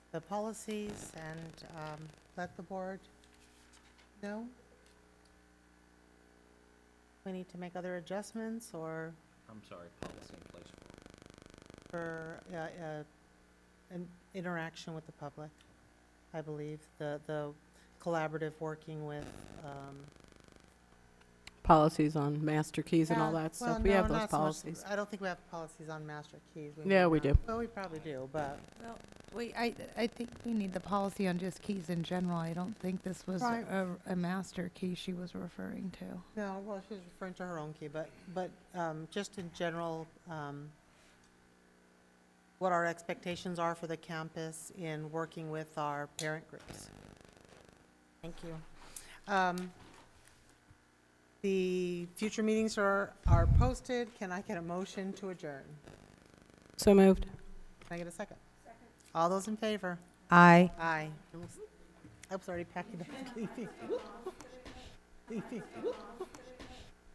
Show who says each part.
Speaker 1: the policies and um, let the board know. We need to make other adjustments or
Speaker 2: I'm sorry, policy in place for.
Speaker 1: for uh, uh, an interaction with the public, I believe, the, the collaborative working with. um,
Speaker 3: policies on master keys and all
Speaker 1: yeah,
Speaker 3: that
Speaker 1: well,
Speaker 3: stuff. We
Speaker 1: no,
Speaker 3: have those
Speaker 1: not so much-
Speaker 3: policies.
Speaker 1: I don't think we have policies on master keys. may
Speaker 3: Yeah, we
Speaker 1: not.
Speaker 3: do.
Speaker 1: Well, we probably do, but.
Speaker 4: Well, we, I, I think we need the policy on just keys in general. I don't think this was
Speaker 1: Right.
Speaker 4: a, a master key she was referring to.
Speaker 1: No, well, she's referring to her own key, but, but um, just in general, um, what our expectations are for the campus in working with our parent groups. Thank you. Um, The future meetings are, are posted. Can I get a motion to adjourn?
Speaker 3: So moved.
Speaker 1: Can I get a second? All those in favor?
Speaker 4: Aye.
Speaker 1: Aye. I was already packing up, leaving. Leaving.